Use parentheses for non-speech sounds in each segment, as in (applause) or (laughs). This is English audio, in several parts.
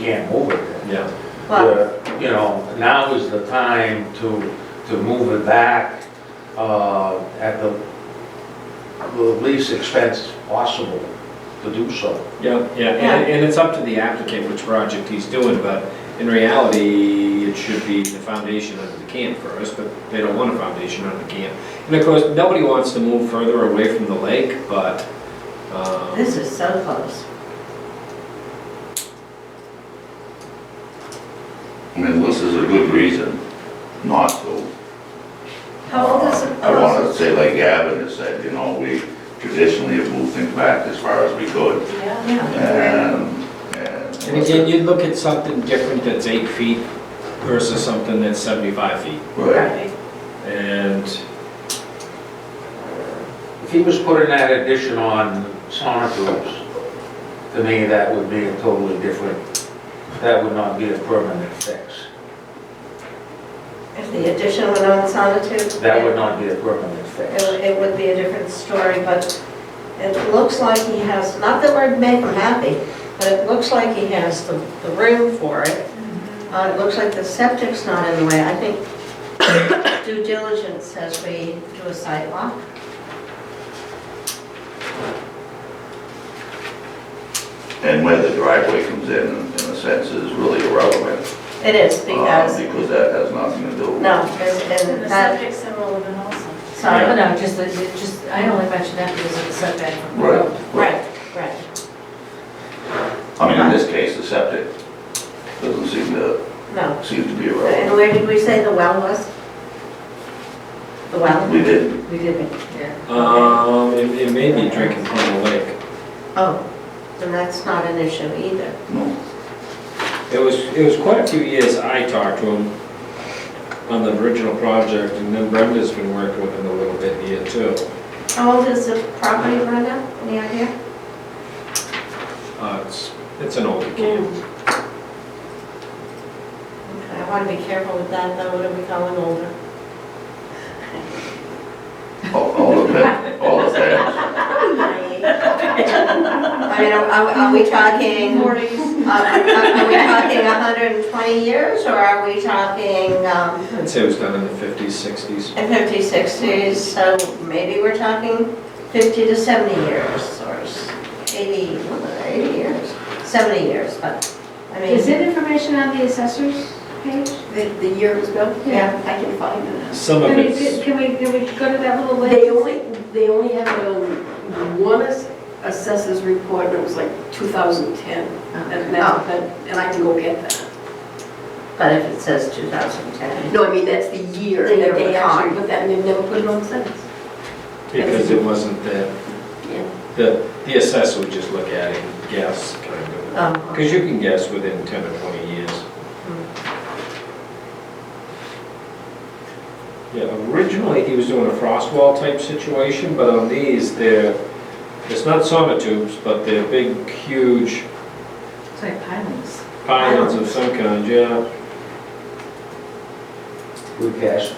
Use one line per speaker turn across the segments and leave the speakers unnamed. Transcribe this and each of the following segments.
can't move it then.
Yeah.
Well,
But, You know, now is the time to, to move it back, uh, at the, the least expense possible to do so.
Yeah, yeah, and, and it's up to the applicant which project he's doing, but in reality, it should be the foundation under the camp first, but they don't want a foundation under the camp. And of course, nobody wants to move further away from the lake, but, um,
this is so close.
I mean, this is a good reason not to.
How old is the
I want
proposal?
to say like Gavin has said, you know, we traditionally have moved things back as far as we could.
Yeah.
And, and.
and again, you'd look at something different that's eight feet versus something that's seventy-five feet.
Right,
And,
If he was putting that addition on sauna tubes, to me, that would be a totally different, that would not be a permanent fix.
If the addition went on Sonotube.
That would not be a permanent fix.
It it would be a different story, but it looks like he has, not that we're making him happy, but it looks like he has the, the room for it. Uh, it looks like the septic's not in the way. I think (coughs) due diligence as we do a site walk.
and where the driveway comes in, in a sense, is really irrelevant.
It is
uh,
because,
Because that has nothing to do.
no, and
And
and
the
that,
subjects are relevant also.
sorry,
No, no, just, the- the- just, I only mentioned that because of the setback from the road.
Right.
right, right,
I mean, in this case, the septic doesn't seem to,
no.
seem to be
And
irrelevant.
where did we say the well was? The well?
We didn't,
We didn't, yeah.
um, it, it may be drinking from the lake.
Oh, then that's not an issue either.
no,
It was, it was quite a few years I talked to him on the original project, and then Brenda's been working with him a little bit here too.
How old is the property, Brenda? Any idea?
Uh, It's, it's an older camp.
Okay, I want to be careful with that, though, when we going (laughs) older.
all, all depends, all depends.
I mean, are- are are we talking, are are- are we talking 120 years, or are we talking um,
I'd say it was done in the fifties, sixties.
50, 60s? So maybe we're talking 50 to 70 years, or s- 80, well, 80 years, 70 years, but, I mean...
Is it information on the assessor's page?
The, the year it was built?
Yeah.
I can find it.
Some of
Can we,
it's,
can we, can we go to that little
They
list?
only, they only had um, one ass- assessors report, and it was like 2010.
Um, oh,
And that's, that- and I can go get that.
But if it says 2010,
No, I mean, that's the year
The year
that
of
they
the
actually put that, and they've never put it on since.
because it wasn't the,
Yeah.
the, the assessor would just look at it and guess, kind of.
um,
Because you can guess within ten or twenty years. Yeah, originally, he was doing a frost wall type situation, but on these, they're, it's not sonotubes, but they're big, huge
It's like pilings.
pylons of some kind, yeah.
We cast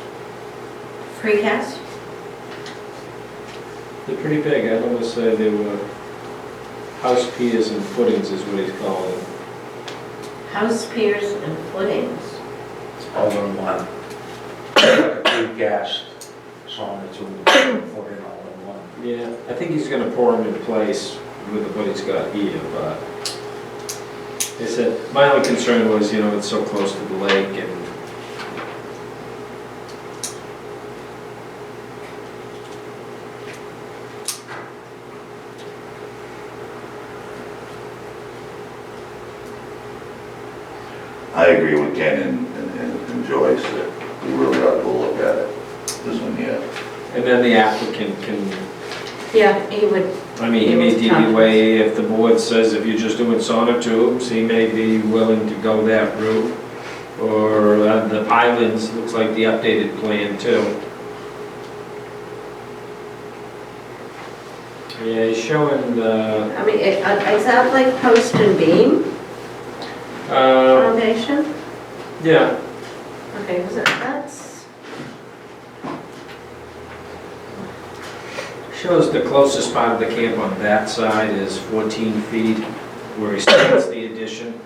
precast?
They're pretty big, I'd almost say they were house piers and footings is what he's calling them.
House piers and footings.
all in one. Precast sauna tube, put it all in one.
Yeah, I think he's gonna pour them in place with what he's got here, but they said, my only concern was, you know, it's so close to the lake and
I agree with Ken and, and- and and Joyce that we really ought to look at it, this one here.
And then the applicant can,
Yeah, he would.
I mean, he may DVA, if the board says if you're just doing sonotubes, he may be willing to go that route. Or uh, the islands, looks like the updated plan too. Yeah, he's showing the,
I mean, it- uh, is that like post and beam
uh,
foundation?
yeah,
Okay, was it, that's,
Shows the closest part of the camp on that side is 14 feet, where he starts the addition.